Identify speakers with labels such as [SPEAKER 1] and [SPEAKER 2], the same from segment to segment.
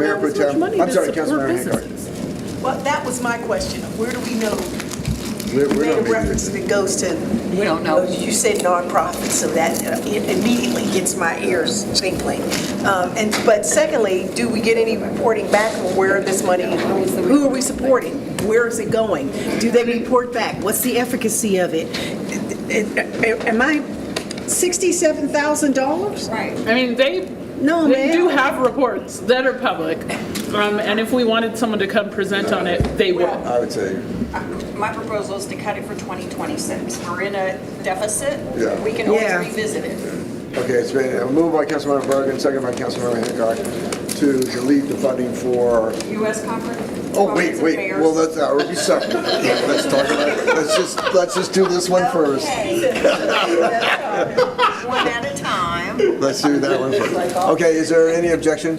[SPEAKER 1] as much
[SPEAKER 2] Tom.
[SPEAKER 1] money
[SPEAKER 2] I'm
[SPEAKER 1] to
[SPEAKER 2] sorry,
[SPEAKER 1] support
[SPEAKER 2] Councilmember Hancock.
[SPEAKER 1] businesses.
[SPEAKER 3] Well, that was my question. Where do we know
[SPEAKER 2] We're, we're not
[SPEAKER 3] that it
[SPEAKER 2] making
[SPEAKER 3] references
[SPEAKER 2] this.
[SPEAKER 3] it goes to?
[SPEAKER 1] We don't know.
[SPEAKER 3] You said nonprofit, so that uh, it immediately gets my ears tingling. Um, And, but secondly, do we get any reporting back on where this money, who are we supporting? Where is it going? Do they report back? What's the efficacy of it? Am I $67,000?
[SPEAKER 1] I mean, they,
[SPEAKER 3] No,
[SPEAKER 1] they
[SPEAKER 3] ma'am.
[SPEAKER 1] do have reports that are public. Um, and if we wanted someone to come present on it, they would.
[SPEAKER 2] I would say,
[SPEAKER 4] My proposal is to cut it for 2026. We're in a deficit.
[SPEAKER 2] Yeah.
[SPEAKER 4] We can always
[SPEAKER 3] Yeah.
[SPEAKER 4] revisit it.
[SPEAKER 2] okay, it's been a move by Councilmember Bergen, second by Councilmember Hancock to delete the funding for,
[SPEAKER 4] U.S. Conference.
[SPEAKER 2] oh, wait,
[SPEAKER 4] Conference of
[SPEAKER 2] wait,
[SPEAKER 4] Mayors.
[SPEAKER 2] well, uh, that's, that would be separate. Let's talk about, it. let's just, let's just do this one first.
[SPEAKER 4] One at a time.
[SPEAKER 2] Let's do that one first. Okay, is there any objection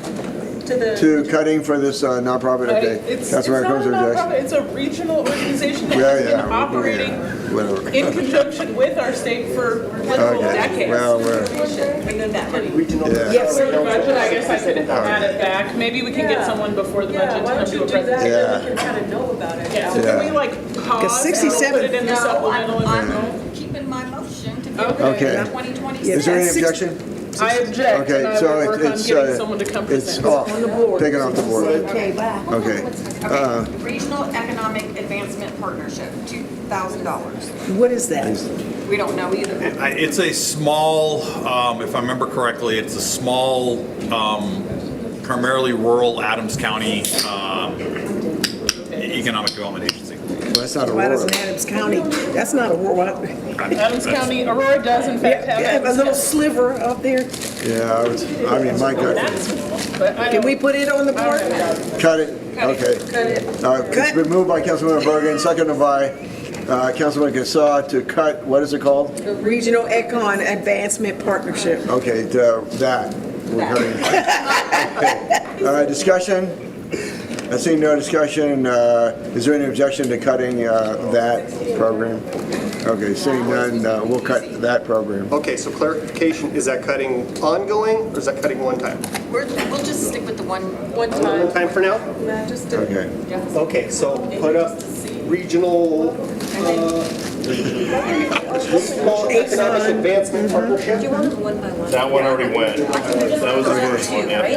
[SPEAKER 1] To the
[SPEAKER 2] to cutting for this uh, nonprofit? Okay,
[SPEAKER 1] It's, it's
[SPEAKER 2] Councilmember
[SPEAKER 1] not a
[SPEAKER 2] Cruiser Jackson.
[SPEAKER 1] nonprofit, it's a regional organization that
[SPEAKER 2] Yeah,
[SPEAKER 1] has been
[SPEAKER 2] yeah.
[SPEAKER 1] operating
[SPEAKER 2] Whatever.
[SPEAKER 1] in conjunction with our state for literal
[SPEAKER 2] Okay,
[SPEAKER 1] decades.
[SPEAKER 2] well, we're-
[SPEAKER 1] And then that money. Yes.
[SPEAKER 2] Yeah,
[SPEAKER 1] For the budget, I guess I could add it back. Maybe we can get someone before the budget to come do a presentation.
[SPEAKER 2] yeah.
[SPEAKER 1] Yeah, so
[SPEAKER 2] Yeah.
[SPEAKER 1] can we like pause and we'll
[SPEAKER 3] 67
[SPEAKER 1] put it in the
[SPEAKER 4] No,
[SPEAKER 1] supplemental?
[SPEAKER 4] I'm,
[SPEAKER 1] and then-
[SPEAKER 4] I'm keeping my motion to go
[SPEAKER 1] Okay.
[SPEAKER 4] to
[SPEAKER 2] Okay. Is
[SPEAKER 4] 2026.
[SPEAKER 2] there any
[SPEAKER 3] Six-
[SPEAKER 2] objection?
[SPEAKER 1] I object, and
[SPEAKER 2] Okay,
[SPEAKER 1] I
[SPEAKER 2] so
[SPEAKER 1] will
[SPEAKER 2] it-
[SPEAKER 1] work on
[SPEAKER 2] it's,
[SPEAKER 1] getting
[SPEAKER 2] uh,
[SPEAKER 1] someone to come
[SPEAKER 2] it's
[SPEAKER 1] present.
[SPEAKER 2] off, taken off the board.
[SPEAKER 3] Okay, bye.
[SPEAKER 2] Okay. Uh,
[SPEAKER 4] Okay. Regional Economic Advancement Partnership, $2,000.
[SPEAKER 3] What is that?
[SPEAKER 4] We don't know either.
[SPEAKER 5] I- It's a small, um, if I remember correctly, it's a small, um, primarily rural Adams County um, Economic Development Agency.
[SPEAKER 2] well, That's not
[SPEAKER 3] Why
[SPEAKER 2] Aurora.
[SPEAKER 3] doesn't Adams County, that's not a world,
[SPEAKER 1] Adams County, Aurora does in fact have.
[SPEAKER 3] a
[SPEAKER 1] Adams
[SPEAKER 3] little sliver up there.
[SPEAKER 2] Yeah, I was- I mean, my God,
[SPEAKER 1] County, But I
[SPEAKER 3] Can
[SPEAKER 1] don't,
[SPEAKER 3] we put it on the board?
[SPEAKER 2] cut it, okay. All right, it's been moved by Councilmember Bergen, seconded by uh, Councilman Gassaw to cut, what is it called?
[SPEAKER 3] The Regional Econ Advancement Partnership.
[SPEAKER 2] Okay, the- that, we're cutting. Okay. All right, discussion? I see no discussion. Uh, Is there any objection to cutting uh, that program? Okay, seeing none, uh, we'll cut that program.
[SPEAKER 6] Okay, so clarification, is that cutting ongoing or is that cutting one time?
[SPEAKER 4] We're, we'll just stick with the one. One
[SPEAKER 6] One time for now?
[SPEAKER 2] Okay.
[SPEAKER 6] Okay, so put up regional, uh, regional economic advancement partnership.
[SPEAKER 7] That one already went. That was the first one, yeah.
[SPEAKER 2] Hey,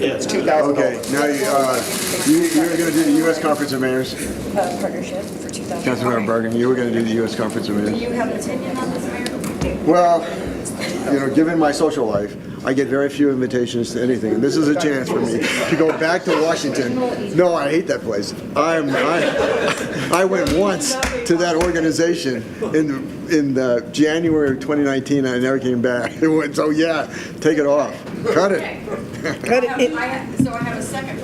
[SPEAKER 6] Yeah, it's two thousand
[SPEAKER 2] Okay,
[SPEAKER 6] dollars.
[SPEAKER 2] now you, uh, you you were going to do the U.S. Conference of Mayors.
[SPEAKER 4] Uh, Partnership for $2,000.
[SPEAKER 2] Councilmember Bergen, you were going to do the U.S. Conference of
[SPEAKER 4] Do
[SPEAKER 2] Mayors.
[SPEAKER 4] you have an opinion on this, Mayor?
[SPEAKER 2] Well, you know, given my social life, I get very few invitations to anything. This is a chance for me to go back to Washington. No, I hate that place. I'm, I, I went once to that organization in, in the January of 2019, and I never came back. It went, so yeah, take it off, cut it.
[SPEAKER 3] Cut
[SPEAKER 4] I
[SPEAKER 3] it,
[SPEAKER 4] have-
[SPEAKER 3] it-
[SPEAKER 4] I have- So I have a second.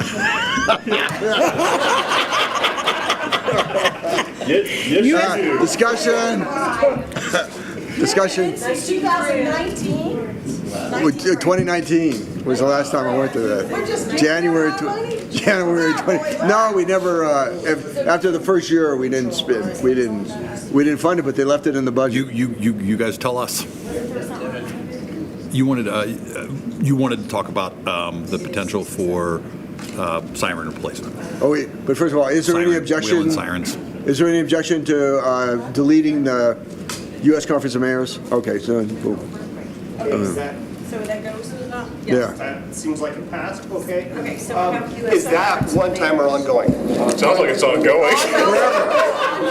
[SPEAKER 7] Yes, yes, you
[SPEAKER 2] Uh,
[SPEAKER 7] do.
[SPEAKER 2] Discussion. Discussion.
[SPEAKER 8] Since 2019?
[SPEAKER 2] Well, j- 2019 was the last time I went to that. January, tw- January 20, no, we never, uh, af- after the first year, we didn't spend, we didn't, we didn't fund it, but they left it in the
[SPEAKER 5] You,
[SPEAKER 2] budget.
[SPEAKER 5] you, you, you guys tell us. You wanted, uh, you wanted to talk about um, the potential for uh, siren replacement.
[SPEAKER 2] Oh, wait, but first of all, is there
[SPEAKER 5] Siren,
[SPEAKER 2] any
[SPEAKER 5] wheel
[SPEAKER 2] objection?
[SPEAKER 5] and sirens.
[SPEAKER 2] Is there any objection to uh, deleting the U.S. Conference of Mayors? Okay, so, cool.
[SPEAKER 6] Is that,
[SPEAKER 4] So that goes uh, to the.
[SPEAKER 2] yeah.
[SPEAKER 6] that seems like it passed, okay?
[SPEAKER 4] Okay, so
[SPEAKER 6] Um,
[SPEAKER 4] we have US
[SPEAKER 6] Is that one time or ongoing?
[SPEAKER 7] Sounds like it's ongoing.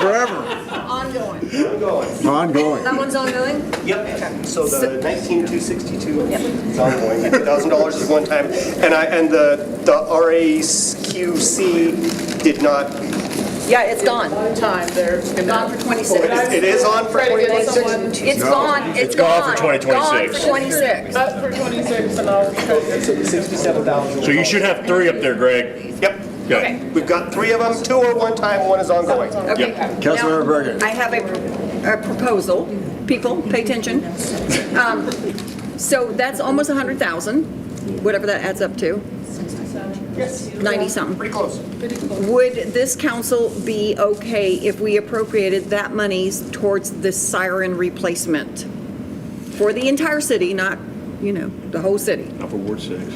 [SPEAKER 2] Forever,
[SPEAKER 4] Ongoing.
[SPEAKER 6] Ongoing.
[SPEAKER 2] ongoing.
[SPEAKER 8] one's ongoing?
[SPEAKER 6] Yep, so the 19262 is ongoing, $1,000 is one time. And I, and the, the RAQC did not,
[SPEAKER 8] Yeah, it's gone.
[SPEAKER 1] time, they're gonna.
[SPEAKER 8] Gone for 26.
[SPEAKER 6] it is on for
[SPEAKER 1] Try to get
[SPEAKER 6] 2026?
[SPEAKER 1] someone
[SPEAKER 8] It's gone, it's
[SPEAKER 7] It's gone
[SPEAKER 8] gone.
[SPEAKER 7] for
[SPEAKER 8] Gone
[SPEAKER 7] 2026.
[SPEAKER 8] for 26.
[SPEAKER 1] Up for 26 and I'll try to get
[SPEAKER 7] So you should have three up there, Greg.
[SPEAKER 6] Yep.
[SPEAKER 7] Okay.
[SPEAKER 6] We've got three of them, two are one time, one is ongoing.
[SPEAKER 8] Okay.
[SPEAKER 2] Councilmember Bergen.
[SPEAKER 8] Now, I have a pr- a proposal. People, pay attention. Um, So that's almost 100,000, whatever that adds up to. 90-something.
[SPEAKER 6] Pretty close.
[SPEAKER 8] Would this council be okay if we appropriated that money towards the siren replacement? For the entire city, not, you know, the whole city?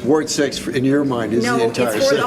[SPEAKER 2] Ward 6, in your mind, is
[SPEAKER 8] No,
[SPEAKER 2] the
[SPEAKER 8] it's
[SPEAKER 2] entire
[SPEAKER 8] for
[SPEAKER 2] city.
[SPEAKER 8] the